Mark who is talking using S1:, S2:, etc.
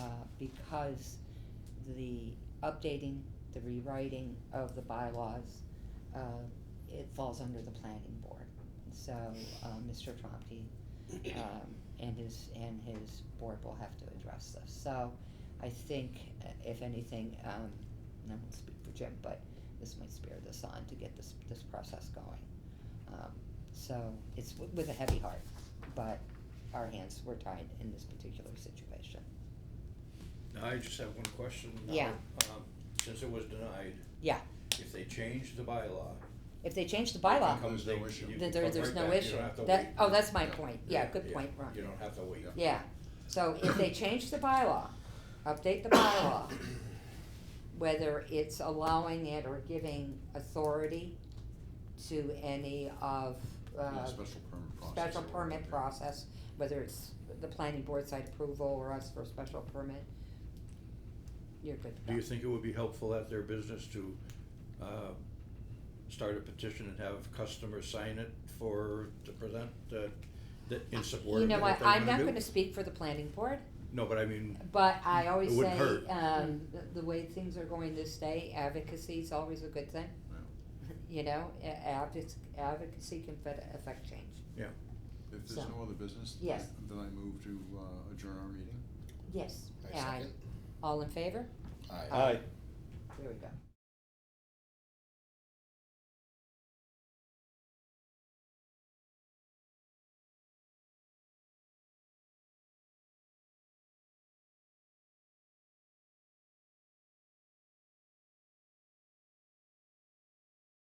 S1: uh, because the updating, the rewriting of the bylaws, uh, it falls under the planning board. So, uh, Mr. Trumpy, um, and his, and his board will have to address this. So, I think uh, if anything, um, and I won't speak for Jim, but this might spare this on to get this, this process going. Um, so it's w- with a heavy heart, but our hands were tied in this particular situation.
S2: I just have one question. now.
S1: Yeah.
S2: Um, Since it was denied.
S1: Yeah.
S2: If they change the bylaw.
S1: If they change the
S2: they can
S1: bylaw,
S2: come-
S3: There's no
S2: they-
S3: issue.
S2: you
S1: then
S2: can
S1: there,
S2: come
S1: there's
S2: right
S1: no
S2: back. You
S1: issue.
S2: don't have to
S1: That,
S2: wait.
S1: oh, that's my
S3: Yeah.
S1: point, yeah, good
S2: Yeah,
S1: point, Ron.
S2: You don't have to wait.
S1: Yeah, so if they change the bylaw, update the bylaw, whether it's allowing it or giving authority to any of,
S3: Yeah,
S1: uh,
S3: special permit process.
S1: special
S3: or
S1: permit
S3: whatever.
S1: process, whether it's the planning board side approval or us for a special permit, you're good to
S2: Do you
S1: go.
S2: think it would be helpful at their business to, uh, start a petition and have customers sign it for, to present, uh, that in support
S1: You
S2: of
S1: know
S2: it, what
S1: what,
S2: they
S1: I'm
S2: wanna
S1: not
S2: do?
S1: gonna speak for the planning board,
S2: No, but I mean,
S1: but I always
S2: It
S1: say,
S2: wouldn't hurt.
S1: um, the, the way things are going this day, advocacy is always a good thing.
S3: Yeah.
S1: You know, a- advoc- advocacy can fit- affect change.
S3: If
S1: So-
S3: there's no other business, then
S1: Yes.
S3: then I move to uh, adjourn our meeting.
S1: Yes,
S4: I
S1: aye,
S4: second.
S1: all in favor?
S4: Aye.
S1: Aye. There we go.